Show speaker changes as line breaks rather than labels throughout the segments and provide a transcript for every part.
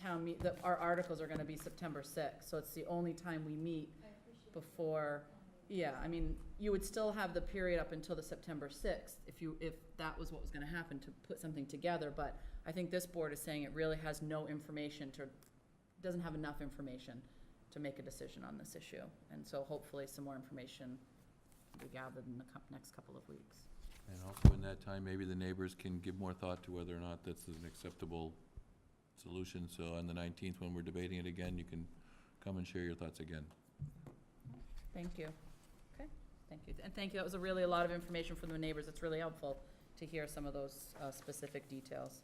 town meet, the, our articles are gonna be September sixth, so it's the only time we meet
I appreciate it.
before, yeah, I mean, you would still have the period up until the September sixth, if you, if that was what was gonna happen, to put something together, but I think this board is saying it really has no information to, doesn't have enough information to make a decision on this issue, and so hopefully some more information will be gathered in the cou- next couple of weeks.
And also in that time, maybe the neighbors can give more thought to whether or not that's an acceptable solution. So on the nineteenth, when we're debating it again, you can come and share your thoughts again.
Thank you. Okay, thank you. And thank you, that was a really a lot of information from the neighbors. It's really helpful to hear some of those uh, specific details.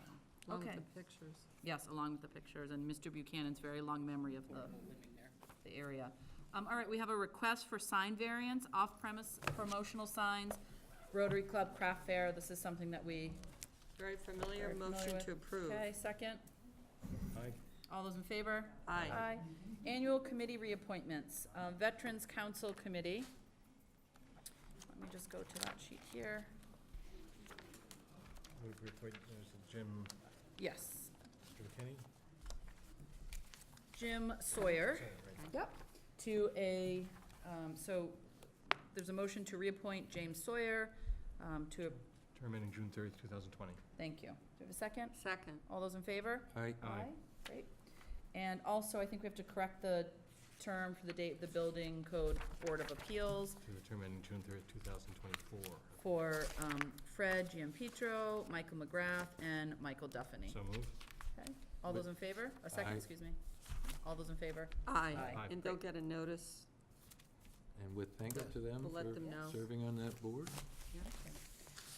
Um,
Along with
Okay.
the pictures.
Yes, along with the pictures, and Mr. Buchanan's very long memory of the, the area. Um, all right, we have a request for sign variance, off-premise promotional signs, Rotary Club Craft Fair. This is something that we,
Very familiar,
Very familiar
motion
with-
to approve.
okay, second?
Aye.
All those in favor?
Aye.
Annual committee reappointments, um, Veterans Council Committee. Let me just go to that sheet here.
Move to appoint uh, Jim
Yes,
McKinney?
Jim Sawyer.
Sorry, right.
Yep. To a, um, so there's a motion to reappoint James Sawyer um, to, a-
Term ending June thirtieth, two thousand twenty.
thank you. Do we have a second?
Second.
All those in favor?
Aye.
Great. And also, I think we have to correct the term for the date, the Building Code Board of Appeals.
To the term ending June thirtieth, two thousand twenty-four.
for um, Fred Giampietro, Michael McGrath, and Michael Duffany.
So moved.
Okay. All those in favor? A second,
Aye.
excuse me. All those in favor?
Aye.
Aye.
And they'll get a notice.
And with thanks to them
We'll let them know.
for serving on that board.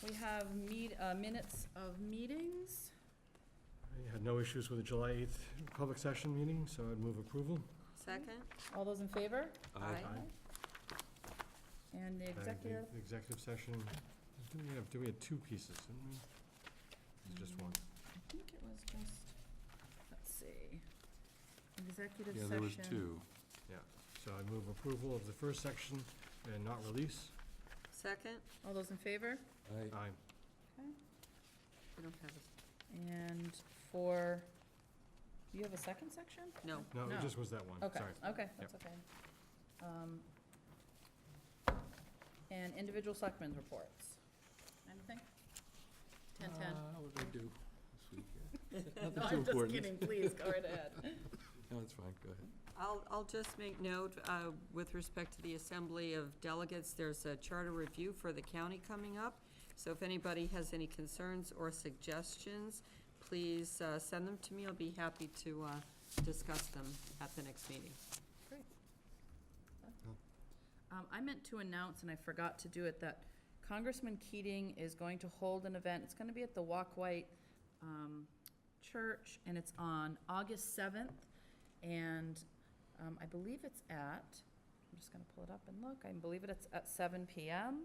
We have meet, uh, minutes of meetings.
I had no issues with the July eighth public session meeting, so I'd move approval.
Second?
All those in favor?
Uh,
Aye.
And the
And the
executive,
the Executive session, do we have, do we have two pieces, didn't we? It's just one.
I think it was just, let's see, executive
Yeah,
session.
there was two.
So I move approval of the first section and not release.
Second?
All those in favor?
Aye.
Aye.
We don't have a,
And for, do you have a second section?
no.
No,
No.
it just was that one,
Okay,
sorry.
okay, that's okay. Um, And individual selectmen's reports. Anything? Ten ten.
Uh, What did I do this weekend?
No,
Nothing too
I'm just
important.
kidding, please, go right ahead.
No, it's fine, go ahead.
I'll, I'll just make note, uh, with respect to the Assembly of Delegates, there's a charter review for the county coming up. So if anybody has any concerns or suggestions, please, uh, send them to me. I'll be happy to, uh, discuss them at the next meeting.
Um, I meant to announce, and I forgot to do it, that Congressman Keating is going to hold an event. It's gonna be at the Walk White, um, Church, and it's on August seventh. And, um, I believe it's at, I'm just gonna pull it up and look, I believe it's at seven PM.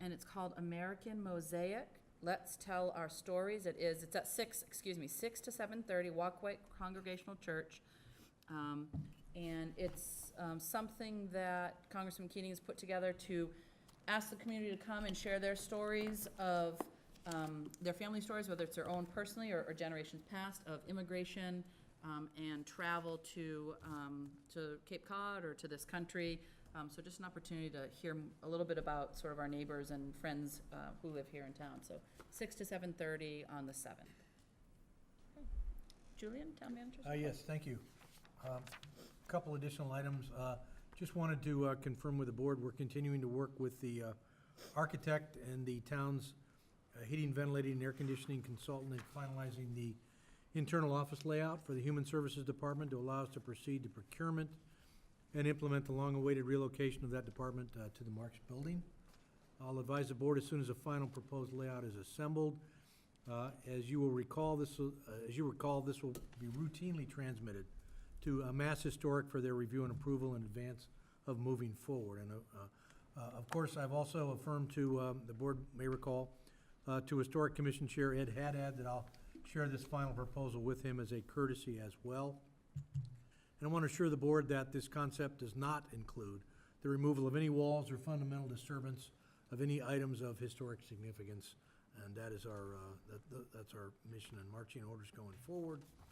And it's called American Mosaic, Let's Tell Our Stories. It is, it's at six, excuse me, six to seven thirty, Walk White Congregational Church. Um, and it's um, something that Congressman Keating has put together to ask the community to come and share their stories of, um, their family stories, whether it's their own personally or or generations past, of immigration um, and travel to, um, to Cape Cod or to this country. Um, So just an opportunity to hear m- a little bit about sort of our neighbors and friends uh, who live here in town. So six to seven-thirty on the seventh. Julian, town manager?
Uh, Yes, thank you. Um, Couple additional items. Uh, Just wanted to uh, confirm with the board, we're continuing to work with the uh, architect and the town's uh, heating, ventilating, and air conditioning consultant in finalizing the internal office layout for the Human Services Department to allow us to proceed to procurement and implement the long-awaited relocation of that department uh, to the Marks Building. I'll advise the board as soon as the final proposed layout is assembled. Uh, As you will recall, this, will- uh, as you recall, this will be routinely transmitted to uh, Mass Historic for their review and approval in advance of moving forward. And, uh, uh, of course, I've also affirmed to, um, the board may recall, uh, to Historic Commission Chair Ed Haddad that I'll share this final proposal with him as a courtesy as well. And I want to assure the board that this concept does not include the removal of any walls or fundamental disturbance of any items of historic significance. And that is our, uh, that- that- that's our mission and marching orders going forward.